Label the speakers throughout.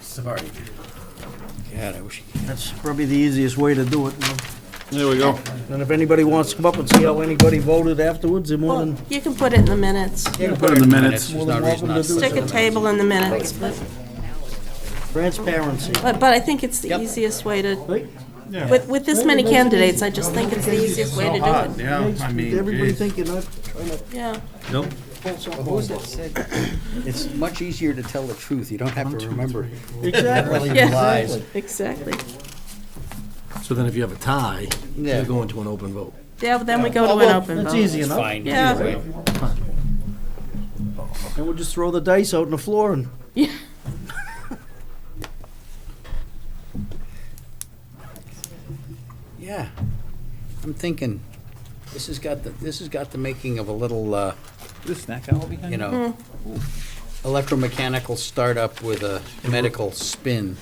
Speaker 1: Sorry.
Speaker 2: God, I wish.
Speaker 1: That's probably the easiest way to do it. you know.
Speaker 2: There we go.
Speaker 1: And if anybody wants to come up and see how anybody voted afterwards, they're more
Speaker 3: Well,
Speaker 1: than.
Speaker 3: you can put it in the minutes.
Speaker 1: You
Speaker 2: Put in the minutes.
Speaker 1: More
Speaker 2: There's no
Speaker 1: than welcome to
Speaker 2: reason not
Speaker 1: do
Speaker 2: to.
Speaker 3: Stick a
Speaker 1: so.
Speaker 3: table in the minutes, but,
Speaker 1: Transparency.
Speaker 3: but but I think it's the
Speaker 1: Yep.
Speaker 3: easiest way to,
Speaker 1: Right?
Speaker 3: with, with this many candidates, I just think it's the easiest way to do it.
Speaker 2: Yeah, I mean,
Speaker 1: Everybody
Speaker 2: geez.
Speaker 1: think you're not trying to
Speaker 3: Yeah,
Speaker 2: Nope.
Speaker 1: pull something
Speaker 2: What was
Speaker 1: over.
Speaker 2: it said? It's much easier to tell the truth. You don't have to remember.
Speaker 1: Exactly.
Speaker 3: Yeah.
Speaker 2: Lies.
Speaker 3: exactly.
Speaker 4: So then if you have a tie,
Speaker 2: Yeah.
Speaker 4: you're going to an open vote.
Speaker 3: Yeah, but then we go
Speaker 1: Oh,
Speaker 3: to an
Speaker 1: well,
Speaker 3: open
Speaker 1: That's
Speaker 3: vote.
Speaker 1: easy enough.
Speaker 2: Fine.
Speaker 3: Yeah.
Speaker 2: either way.
Speaker 1: And we'll just throw the dice out on the floor and.
Speaker 3: Yeah.
Speaker 2: Yeah. I'm thinking, this has got the, this has got the making of a little, uh,
Speaker 5: This snack hour behind
Speaker 2: you know,
Speaker 1: Mm-hmm.
Speaker 2: electromechanical startup with a medical spin.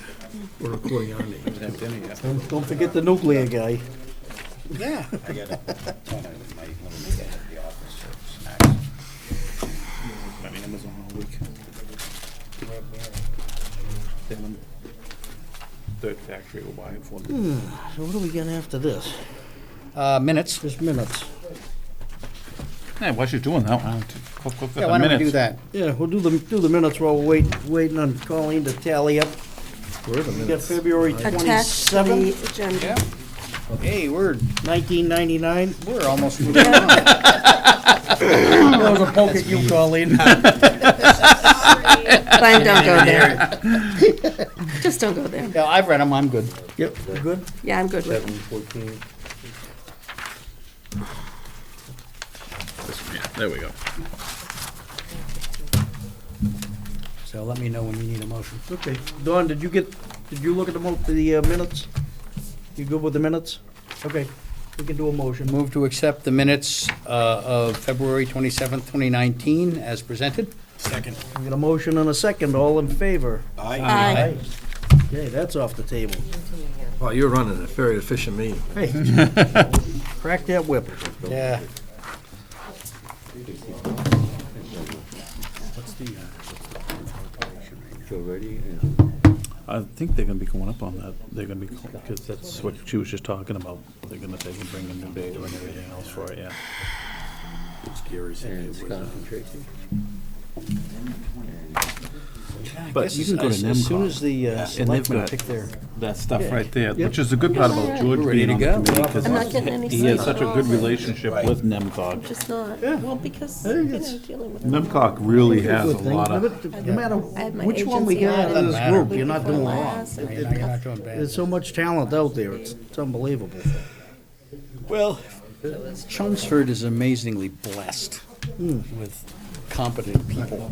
Speaker 4: We're recording our name.
Speaker 5: you? Have dinner yet?
Speaker 1: Don't don't forget the nuclear guy.
Speaker 2: Yeah.
Speaker 5: My name is on all week. Then, Third factory will buy it for me.
Speaker 1: So what are we getting after this?
Speaker 2: Uh, minutes.
Speaker 1: Just minutes.
Speaker 5: Yeah, while she's doing that, why don't you click, click, click
Speaker 2: Yeah,
Speaker 5: the
Speaker 2: why don't we do
Speaker 5: minutes.
Speaker 2: that?
Speaker 1: Yeah, we'll do the, do the minutes while we're waiting, waiting on Colleen to tally up.
Speaker 4: We're the
Speaker 1: We got
Speaker 4: minutes.
Speaker 1: February
Speaker 3: Attached to the
Speaker 1: twenty-seventh,
Speaker 3: agenda.
Speaker 2: Hey, we're,
Speaker 1: nineteen ninety-nine.
Speaker 2: we're almost moving on.
Speaker 1: That was a poke at you, Colleen.
Speaker 3: Glenn, don't go there. Just don't go there.
Speaker 2: Yeah, I've read them, I'm good.
Speaker 1: Yep, we're good?
Speaker 3: Yeah, I'm good with it.
Speaker 4: Seven fourteen.
Speaker 5: Yeah, There we go.
Speaker 2: So let me know when you need a motion.
Speaker 1: Okay. Dawn, did you get, did you look at the mo, the uh, minutes? You good with the minutes? Okay, we can do a motion.
Speaker 2: Move to accept the minutes uh, of February 27th, 2019, as presented.
Speaker 1: We got a motion and a second, all in favor?
Speaker 3: Aye.
Speaker 1: Okay, that's off the table.
Speaker 4: Wow, Oh, you're running a very efficient meeting.
Speaker 1: Hey, crack that whip.
Speaker 2: Yeah.
Speaker 5: I think they're gonna be going up on that, they're gonna be, because that's what she was just talking about, they're gonna, they can bring in new data and everything else for it, yeah. But you can go to
Speaker 2: As soon as
Speaker 5: NEMCOG,
Speaker 2: the uh,
Speaker 5: and they've
Speaker 2: selectmen
Speaker 5: got-
Speaker 2: pick their,
Speaker 5: that stuff right there, which is the good part about George
Speaker 2: We're ready
Speaker 5: being on
Speaker 2: to
Speaker 5: the
Speaker 2: go.
Speaker 5: committee,
Speaker 3: I'm not
Speaker 5: because
Speaker 3: getting any
Speaker 5: he has
Speaker 3: sleep
Speaker 5: such
Speaker 3: at
Speaker 5: a
Speaker 3: all.
Speaker 5: good relationship with NEMCOG.
Speaker 3: Just not, well, because, you know, dealing with.
Speaker 5: NEMCOG really has a
Speaker 1: Good thing.
Speaker 5: lot of.
Speaker 1: No matter
Speaker 3: I had my
Speaker 1: which one we
Speaker 3: agency
Speaker 1: get out of
Speaker 3: on it
Speaker 1: this
Speaker 2: Doesn't
Speaker 1: group,
Speaker 2: matter.
Speaker 1: you're not doing wrong.
Speaker 3: last, and
Speaker 2: you're not you're not doing bad.
Speaker 1: There's so much talent out there, it's it's unbelievable.
Speaker 2: Well. Chelmsford is amazingly blessed with competent people.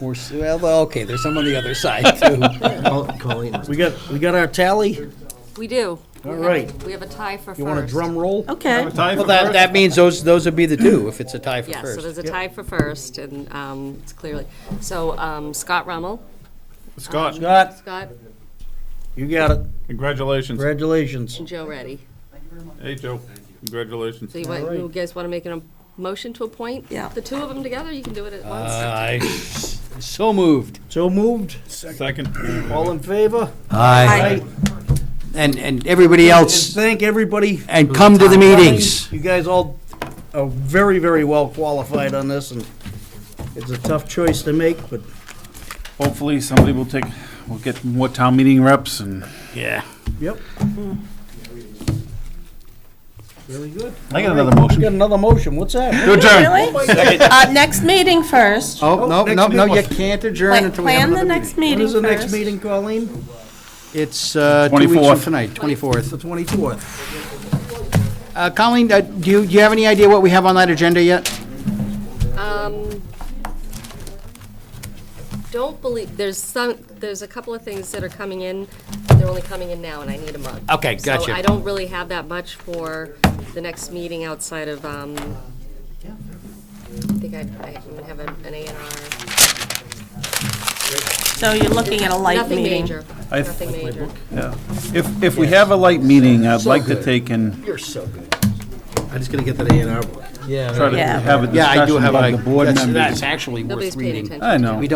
Speaker 2: Or s- Well, okay, there's some on the other side, too.
Speaker 4: Col- Colleen,
Speaker 1: We got, we got our tally?
Speaker 6: We do.
Speaker 1: All
Speaker 6: We have a-
Speaker 1: right.
Speaker 6: We have a tie for first.
Speaker 1: You want a drum roll?
Speaker 3: Okay,
Speaker 2: Well, that, that means those, those would be the two, if it's a tie for
Speaker 6: Yes, so
Speaker 2: first.
Speaker 6: there's a tie for first, and um, it's clearly, so um, Scott Rummel.
Speaker 5: Scott,
Speaker 1: Scott,
Speaker 6: Scott
Speaker 1: you got it.
Speaker 5: congratulations.
Speaker 1: Congratulations.
Speaker 6: and Joe Ready.
Speaker 5: Hey, Joe, congratulations.
Speaker 6: So you want, you guys want to make a motion to appoint?
Speaker 3: Yeah.
Speaker 6: The two of them together, you can do it at
Speaker 2: Uh,
Speaker 6: once.
Speaker 2: I, so moved.
Speaker 1: So moved,
Speaker 5: Second.
Speaker 1: all in favor?
Speaker 2: Aye. And, and everybody else,
Speaker 1: Thank everybody.
Speaker 2: and come to the meetings.
Speaker 1: You guys all are very, very well qualified on this, and it's a tough choice to make, but
Speaker 5: Hopefully, somebody will take, will get more town meeting reps and.
Speaker 2: Yeah.
Speaker 1: Yep. Really good.
Speaker 5: I got another
Speaker 1: We got
Speaker 5: motion.
Speaker 1: another motion, what's that?
Speaker 5: Your turn.
Speaker 3: really? Uh, next meeting first.
Speaker 2: Oh, no,
Speaker 1: next
Speaker 2: no, no,
Speaker 1: meeting.
Speaker 2: you can't adjourn
Speaker 3: Plan
Speaker 2: until we have
Speaker 3: plan the
Speaker 2: another
Speaker 3: next
Speaker 2: meeting.
Speaker 1: When
Speaker 3: meeting
Speaker 1: is the next
Speaker 3: first.
Speaker 1: meeting, Colleen?
Speaker 2: It's uh, two weeks from
Speaker 5: 24th.
Speaker 2: tonight,
Speaker 1: The
Speaker 2: 24th.
Speaker 1: twenty-fourth.
Speaker 2: Uh, Colleen, uh, do you, do you have any idea what we have on that agenda yet?
Speaker 6: Um, Don't believe, there's some, there's a couple of things that are coming in, they're only coming in now, and I need them up.
Speaker 2: Okay,
Speaker 6: So
Speaker 2: gotcha.
Speaker 6: I don't really have that much for the next meeting outside of, um, I think I, I would have an A and R.
Speaker 3: So you're looking at a light
Speaker 6: Nothing
Speaker 3: meeting.
Speaker 6: major,
Speaker 5: I-
Speaker 6: nothing major.
Speaker 5: Yeah. If, if we have a light meeting, I'd like to take and
Speaker 2: You're so good.
Speaker 4: I just gotta get that A and R book.
Speaker 2: Yeah.
Speaker 5: try to
Speaker 3: Yeah.
Speaker 5: have a
Speaker 2: Yeah, I do
Speaker 5: discussion
Speaker 2: have
Speaker 5: of
Speaker 2: a,
Speaker 5: the board
Speaker 2: that's,
Speaker 5: members.
Speaker 2: that's actually worth
Speaker 6: Nobody's paying
Speaker 2: reading.
Speaker 6: attention.
Speaker 5: I know.
Speaker 2: We don't